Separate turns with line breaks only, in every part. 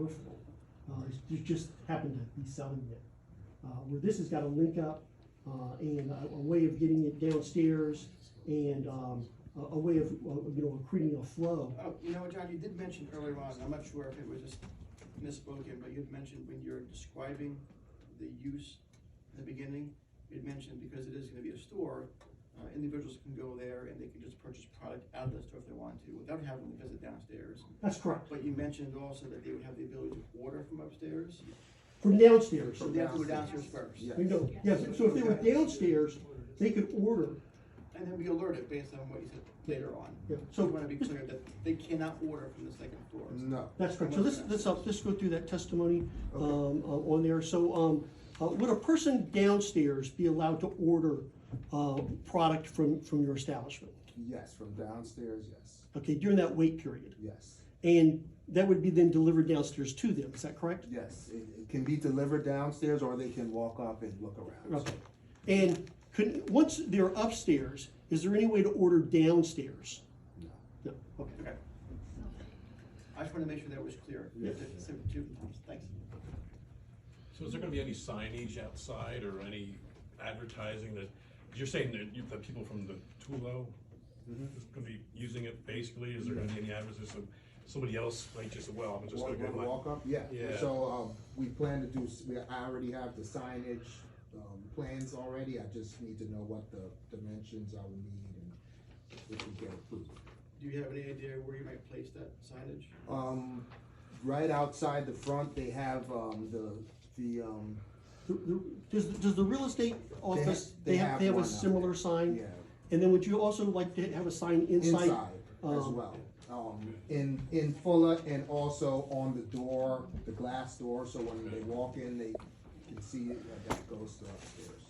negotiable. Uh, it's- it just happened to be selling there. Uh, where this has got a link up, uh, and a, a way of getting it downstairs and, um, a, a way of, uh, you know, creating a flow.
Oh, you know, John, you did mention earlier on, I'm not sure if it was just misspoken, but you'd mentioned when you're describing the use in the beginning, you'd mentioned because it is gonna be a store, uh, individuals can go there and they can just purchase product out of the store if they want to, without having to visit downstairs.
That's correct,
But you mentioned also that they would have the ability to order from upstairs,
from downstairs.
so they have to go downstairs first.
Yeah.
You know, yeah, so if they were downstairs, they could order,
And then be alerted based on what you said later on.
yeah,
So
so.
we wanna be clear that they cannot order from the second floor.
No.
That's correct. So this, this, I'll just go through that testimony, um, uh, on there. So, um, uh, would a person downstairs be allowed to order, uh, product from, from your establishment?
Yes, from downstairs, yes,
Okay, during that wait period?
yes,
And that would be then delivered downstairs to them, is that correct?
yes. It, it can be delivered downstairs or they can walk up and look around.
Okay. And could, once they're upstairs, is there any way to order downstairs?
No.
No, okay.
Okay. I just wanna make sure that was clear.
Yes.
So, two times. Thanks.
So is there gonna be any signage outside or any advertising that, 'cause you're saying that you, the people from the Tulo
Mm-hmm.
is gonna be using it basically, is there gonna be any advertising, somebody else might just, well, I'm just gonna
Walk,
get
walk,
my.
walk up, yeah.
Yeah.
So, um, we plan to do, s- we, I already have the signage, um, plans already. I just need to know what the dimensions I will need and if we get approved.
Do you have any idea where you might place that signage?
Um, right outside the front, they have, um, the, the, um,
The- the- Does, does the real estate office,
they
they have,
have
they have a
one out
similar
there.
sign?
yeah,
And then would you also like to have a sign inside?
inside as
um,
well. Um, in, in Fuller and also on the door, the glass door, so when they walk in, they can see that that goes to upstairs.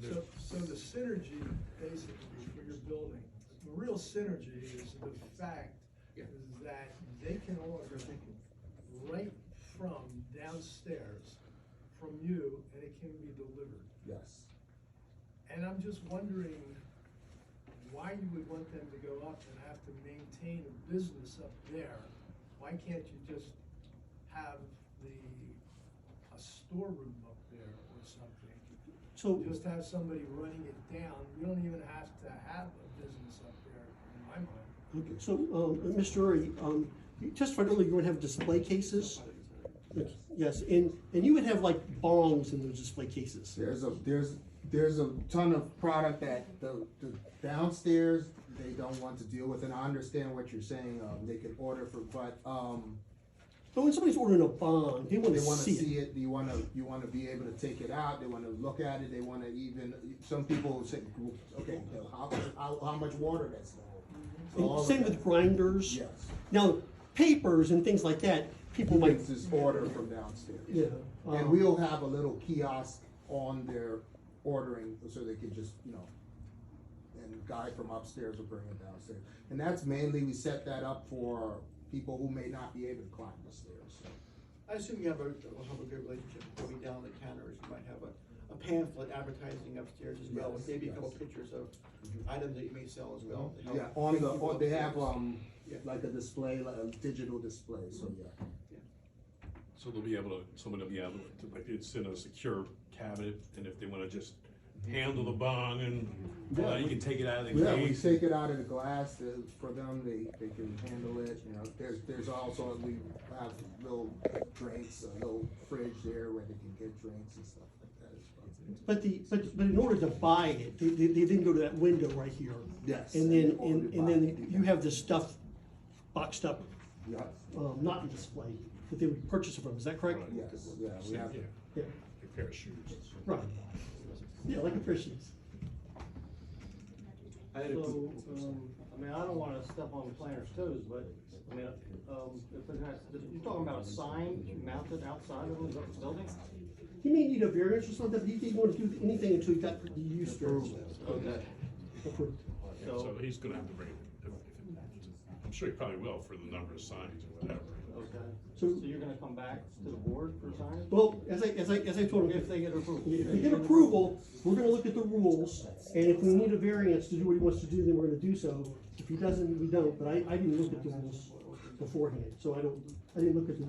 There's-
So, so the synergy basically for your building, the real synergy is the fact
Yeah.
is that they can order right from downstairs from you and it can be delivered.
Yes.
And I'm just wondering why you would want them to go up and have to maintain a business up there? Why can't you just have the, a storeroom up there or something?
So,
Just have somebody running it down, you don't even have to have a business up there, in my mind.
okay, so, um, Mr. Uri, um, you testified earlier you would have display cases? Yes, and, and you would have like bongs in those display cases?
There's a, there's, there's a ton of product that the, the downstairs, they don't want to deal with, and I understand what you're saying, um, they can order for, but, um,
But when somebody's ordering a bong, they want
they
to
wanna
see
see
it.
it, you wanna, you wanna be able to take it out, they wanna look at it, they wanna even, some people say, okay, how, how, how much water that's gonna hold. So
And
all of
Same
that-
with grinders.
Yes.
Now, papers and things like that, people might,
It's this order from downstairs.
yeah.
And
um,
we'll have a little kiosk on their ordering, so they can just, you know, and guy from upstairs will bring it downstairs. And that's mainly, we set that up for people who may not be able to climb the stairs, so.
I assume you have a, will have a good relationship, probably down the counters, you might have a, a pamphlet advertising upstairs as well, with
Yes,
maybe a couple
yes.
pictures of items that you may sell as well. to help
Yeah, on
bring
the,
people
on- they have,
upstairs.
um,
Yeah.
like a display, like a digital display, so yeah.
So they'll be able to, someone will be able to, like, it's in a secure cabinet, and if they wanna just handle the bong and,
Yeah,
uh, you
we-
can take it out of the
Yeah, we
case.
take it out of the glass, uh, for them, they, they can handle it, you know, there's, there's also, we have little drinks, a little fridge there where they can get drinks and stuff like that as well.
But the, but, but in order to buy it, they, they, they then go to that window right here.
Yes.
And then,
all
and,
the
and then
boxes.
you have this stuff boxed up,
Yes,
um, not in display, that they would purchase it from, is that correct?
Right.
yes, yeah, we have,
Yeah,
Yeah,
a pair of shoes.
right. Yeah, like a pair of shoes.
So, um, I mean, I don't wanna step on the planner's toes, but, I mean, um, if they're not, if you're talking about a sign mounted outside of the building?
He may need a variance or something, but he didn't want to do anything until he got the use variance.
Okay.
Approved.
Yeah, So he's gonna have to bring, if- if- I'm sure he probably will for the number of signs or whatever.
Okay, so
So-
you're gonna come back to the board for signs?
Well, as I, as I, as I told him,
If they get approval.
If we get approval, we're gonna look at the rules, and if we need a variance to do what he wants to do, then we're gonna do so. If he doesn't, we don't, but I, I didn't look at the rules beforehand, so I don't, I didn't look at the